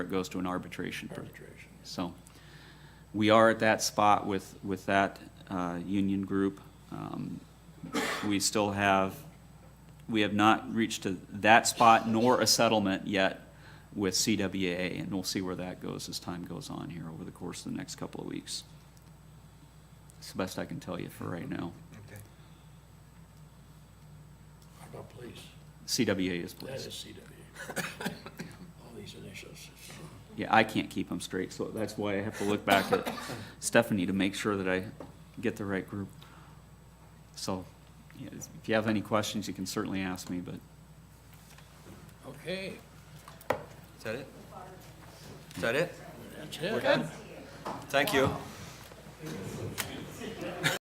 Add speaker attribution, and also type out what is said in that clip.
Speaker 1: it goes to an arbitration.
Speaker 2: arbitration.
Speaker 1: So we are at that spot with, with that uh, union group. Um, We still have, we have not reached to that spot nor a settlement yet with CWA, and we'll see where that goes as time goes on here over the course of the next couple of weeks. It's the best I can tell you for right now.
Speaker 3: Okay.
Speaker 2: How about police?
Speaker 1: CWA is
Speaker 2: That is
Speaker 1: pleased.
Speaker 2: CW. All these initials.
Speaker 1: Yeah, I can't keep them straight, so that's why I have to look back at Stephanie to make sure that I get the right group. So, yeah, if you have any questions, you can certainly ask me, but
Speaker 2: Okay,
Speaker 3: Is that it? Is that it?
Speaker 2: that's it.
Speaker 3: Thank you.